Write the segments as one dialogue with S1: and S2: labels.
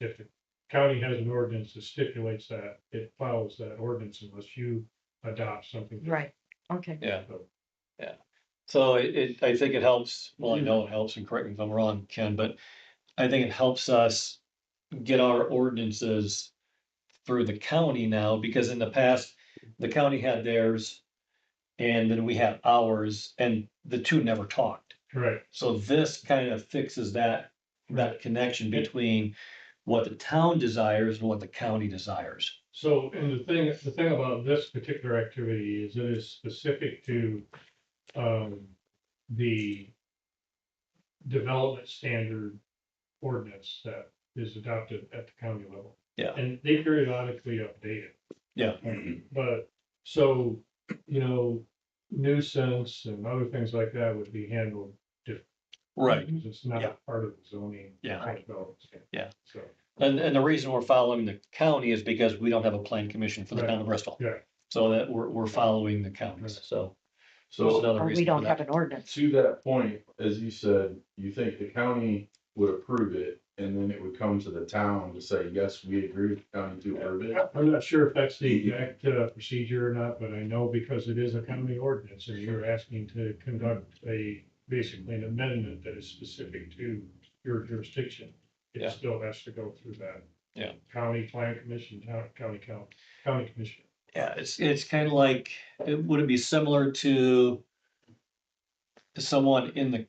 S1: if the county has an ordinance that stipulates that, it follows that ordinance unless you adopt something. different.
S2: Right, okay.
S3: Yeah.
S1: So,
S3: So it, it, I think it helps, well, I know it helps, and correct me if I'm wrong, Ken, but I think it helps us get our ordinances through the county now, because in the past, the county had theirs and then we had ours, and the two never talked.
S1: Correct,
S3: So this kind of fixes that, that connection between what the town desires and what the county desires.
S1: so, and the thing, the thing about this particular activity is it is specific to, um, the development standard ordinance that is adopted at the county level.
S3: Yeah.
S1: And they periodically update it.
S3: Yeah.
S1: But, so, you know, nuisance and other things like that would be handled because It's
S3: Yeah.
S1: not part of the zoning.
S3: Yeah.
S1: kind of development standard.
S3: Yeah.
S1: So,
S3: And, and the reason we're following the county is because we don't have a plan commission for the town of Bristol.
S1: Yeah.
S3: So that we're, we're following the counties, so. that's
S4: So
S3: another
S2: Or we
S3: reason for
S2: don't
S3: that.
S2: have an ordinance.
S4: to that point, as you said, you think the county would approve it and then it would come to the town to say, yes, we agree with the county to approve it.
S1: I'm not sure if that's the exact uh, procedure or not, but I know because it is a county ordinance and you're asking to conduct a, basically an amendment that is specific to your jurisdiction.
S3: Yeah.
S1: It still has to go through that.
S3: Yeah.
S1: County plan commission, town, county count, county commission.
S3: Yeah, it's, it's kind of like, it would it be similar to someone in the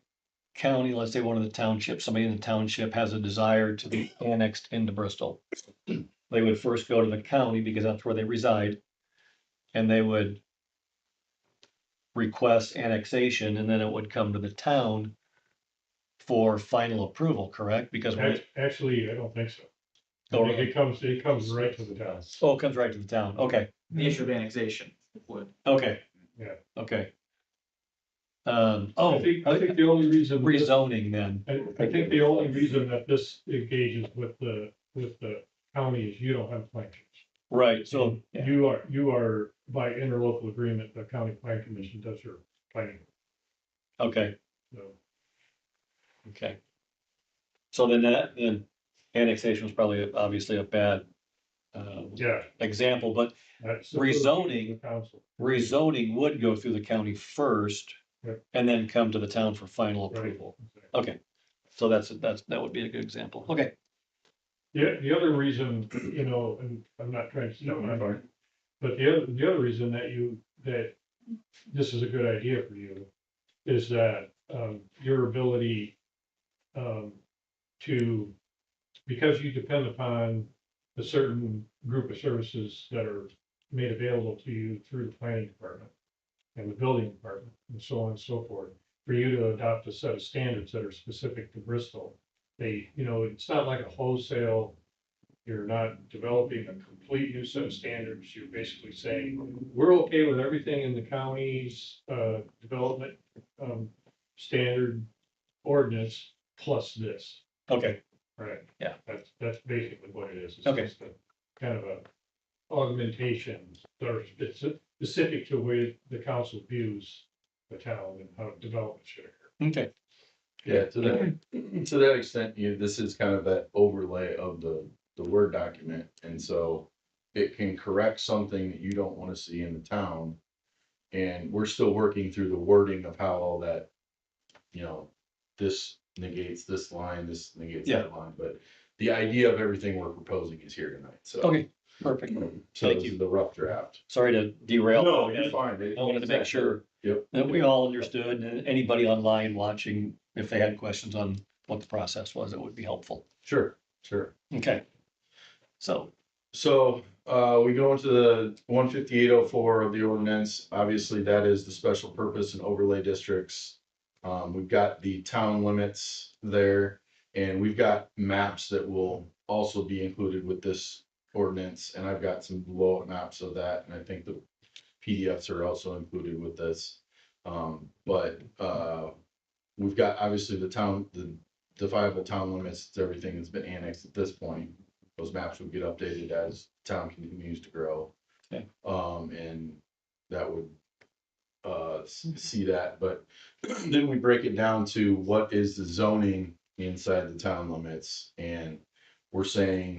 S3: county, let's say one of the townships, somebody in the township has a desire to be annexed into Bristol. They would first go to the county because that's where they reside. And they would request annexation and then it would come to the town for final approval, correct? Because when
S1: Act-
S3: it,
S1: Actually, I don't think so.
S3: Oh,
S1: I think It comes, it comes right to the town.
S3: oh, it comes right to the town. Okay,
S5: the issue of annexation would.
S3: okay.
S1: Yeah.
S3: Okay. Um, oh.
S1: I think, I think the only reason. this-
S3: rezoning then.
S1: I, I think the only reason that this engages with the, with the county is you don't have plan. commission.
S3: Right, so,
S1: You are, you are by interlocal agreement, the county plan commission does your planning,
S3: okay,
S1: so.
S3: okay. So then that, then annexation was probably obviously a bad uh,
S1: Yeah.
S3: example, but
S1: that's-
S3: Rezoning.
S1: Council,
S3: rezoning would go through the county first
S1: Right.
S3: and then come to the town for final
S1: Right.
S3: approval.
S1: okay.
S3: Okay, so that's, that's, that would be a good example. Okay,
S1: The, the other reason, you know, and I'm not trying to, no, I'm-
S4: Fine.
S1: But the other, the other reason that you, that this is a good idea for you is that, um, your ability, um, to, because you depend upon a certain group of services that are made available to you through the planning department and the building department and so on and so forth, for you to adopt a set of standards that are specific to Bristol. They, you know, it's not like a wholesale you're not developing a complete new set of standards. You're basically saying, we're okay with everything in the county's, uh, development, um, standard ordinance plus this,
S3: okay,
S1: right?
S3: Yeah.
S1: That's, that's basically what it is. It's
S3: Okay.
S1: just a Kind of a augmentation, that are speci- specific to where the council views the town and how development should occur.
S3: okay,
S4: Yeah, to that, to that extent, you, this is kind of that overlay of the, the Word document. And so it can correct something that you don't want to see in the town. And we're still working through the wording of how all that, you know, this negates this line, this negates that line. But the idea of everything we're proposing is here tonight, so.
S3: okay, perfect.
S4: So
S3: Thank
S4: this
S3: you.
S4: is the rough draft.
S3: Sorry to derail.
S4: No, you're fine. It-
S3: I wanted to make sure
S4: Yep.
S3: that we all understood and anybody online watching, if they had questions on what the process was, it would be helpful.
S4: Sure, sure.
S3: Okay. So,
S4: So, uh, we go into the one fifty-eight oh four of the ordinance. Obviously, that is the special purpose and overlay districts. Um, we've got the town limits there and we've got maps that will also be included with this ordinance. And I've got some blowout maps of that and I think the PDFs are also included with this. Um, but, uh, we've got obviously the town, the definable town limits, it's everything that's been annexed at this point those maps would get updated as town continues to grow.
S3: Okay.
S4: Um, and that would, uh, s- see that, but then we break it down to what is the zoning inside the town limits? And we're saying